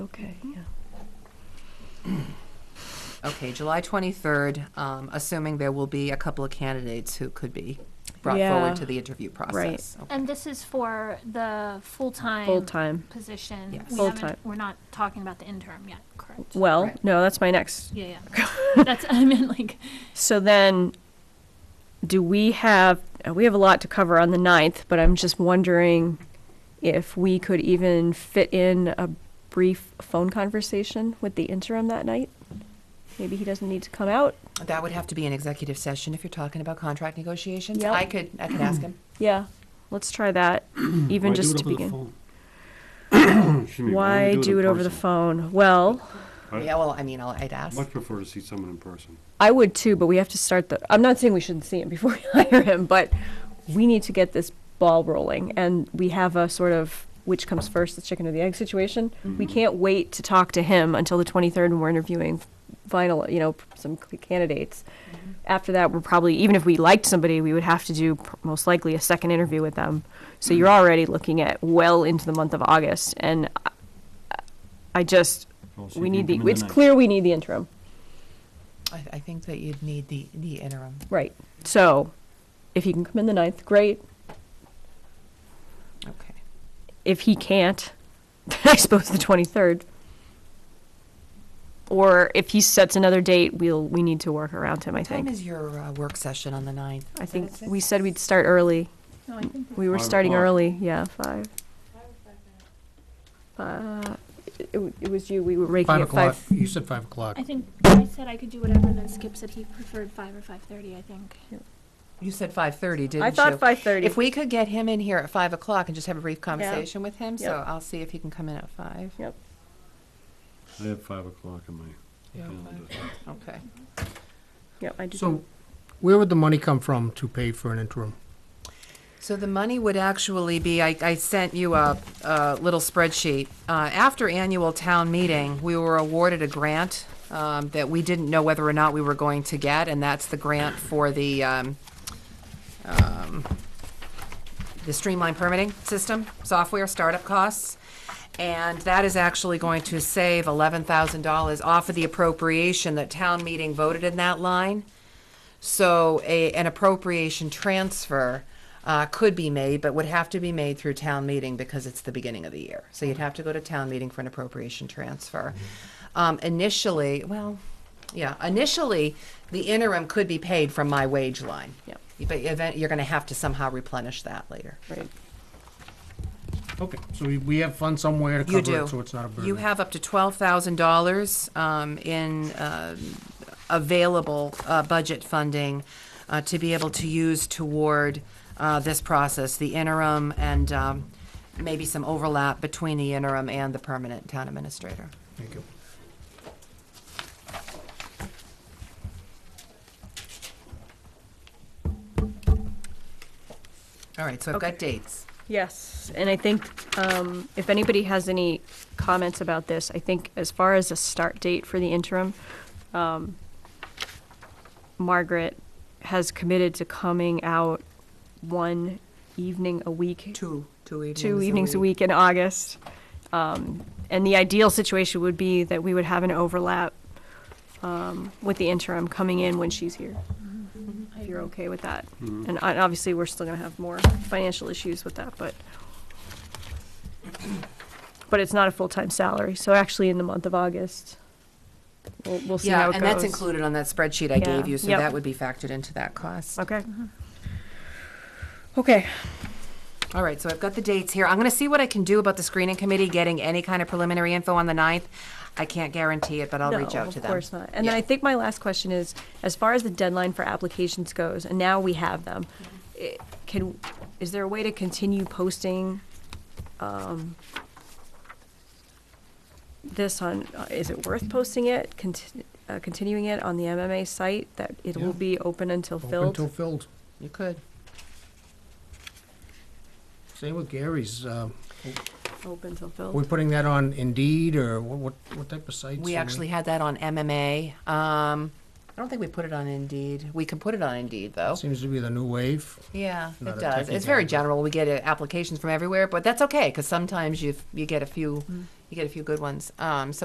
Okay, yeah. Okay, July 23rd, um, assuming there will be a couple of candidates who could be brought Yeah. forward to the interview process. Okay. And this is for the full-time. Full-time. Position. Yes. We haven't- Full-time. We're not talking about the interim yet, correct? Well, Right. no, that's my next. Yeah, yeah. That's, I mean, like, So then, do we have, uh, we have a lot to cover on the ninth, but I'm just wondering if we could even fit in a brief phone conversation with the interim that night? Maybe he doesn't need to come out? That would have to be an executive session if you're talking about contract negotiations. Yep. I could, I could ask him. Yeah, let's try that, even just to begin. Why do it over the phone? Well, Yeah, well, I mean, I'll- I'd ask. Much prefer to see someone in person. I would too, but we have to start the, I'm not saying we shouldn't see him before we hire him, but we need to get this ball rolling. And we have a sort of which comes first, the chicken or the egg situation. Mm-hmm. We can't wait to talk to him until the 23rd when we're interviewing final, you know, some c- candidates. Mm-hmm. After that, we're probably, even if we liked somebody, we would have to do pr- most likely a second interview with them. So you're Mm-hmm. already looking at well into the month of August. And I, I just, Well, so we you need can the, come in it's ninth. clear we need the interim. I, I think that you'd need the, the interim. Right. So if he can come in the ninth, great. Okay. If he can't, I suppose the twenty third. Or if he sets another date, we'll we need to work around him. I What time think. is your uh, work session on the 9th? I Is it at think we six? said we'd start early. no, I think We were Five starting o'clock. early. Yeah, five. Uh, it, it w- it was you. We were raking Five at o'clock, five. you said five o'clock. I think I said I could do whatever, and then Skip said he preferred five or five-thirty, I think. You said 5:30, didn't you? I thought five thirty. If we could get him in here at 5 o'clock and just have a brief conversation with him, so Yep. I'll see if he can come in at 5. Yep. I have five o'clock in my calendar. Okay. Yep. I do. So where would the money come from to pay for an interim? So the money would actually be, I, I sent you a, a little spreadsheet. Uh, after annual town meeting, we were awarded a grant, um, that we didn't know whether or not we were going to get, and that's the grant for the, um, um, the streamlined permitting system, software, startup costs. And that is actually going to save eleven thousand dollars off of the appropriation that town meeting voted in that line. So a, an appropriation transfer uh, could be made, but would have to be made through town meeting because it's the beginning of the year. So you'd have to go to town meeting for an appropriation transfer. Um, initially, well, yeah, initially, the interim could be paid from my wage line. Yep. But event, you're gonna have to somehow replenish that later. Right. Okay, so we, we have funds somewhere to You cover do. it, so it's not a burden. You have up to twelve thousand dollars, um, in, um available, uh, budget funding, uh, to be able to use toward, uh, this process, the interim and, um, maybe some overlap between the interim and the permanent town administrator. Thank you. All right, so I've got dates. Yes, and I think um, if anybody has any comments about this, I think as far as a start date for the interim, um, Margaret has committed to coming out one evening a week, Two, two evenings. two evenings a week in August. Um, And the ideal situation would be that we would have an overlap um, with the interim coming in when she's here. If you're okay with that. And I- obviously, we're still gonna have more financial issues with that, but, but it's not a full-time salary, so actually in the month of August, we'll, we'll see how Yeah, it goes. and that's included on that spreadsheet I Yeah, gave you, so yep. that would be factored into that cost. Okay. Okay, All right, so I've got the dates here. I'm gonna see what I can do about the screening committee getting any kind of preliminary info on the ninth. I can't guarantee it, but I'll reach No, out to them. Of course not. And then Yeah. I think my last question is, as far as the deadline for applications goes, and now we have them, i- can, is there a way to continue posting, um, this on, uh, is it worth posting it, conti- uh, continuing it on the MMA site, that it will Yeah. be open until Open until filled? filled. You could. Same with Gary's. uh, Open till Are filled. we putting that on Indeed or what, what- what type of sites? We are actually had that on MMA. Um, I don't think we put it on Indeed. We can put it on Indeed, though. Seems to be the new wave. Yeah, it Not a does. techie It's very guy, but- Mm. general. We get uh, applications from everywhere, but that's okay, because sometimes you, you get a few you get a few good ones. Um, so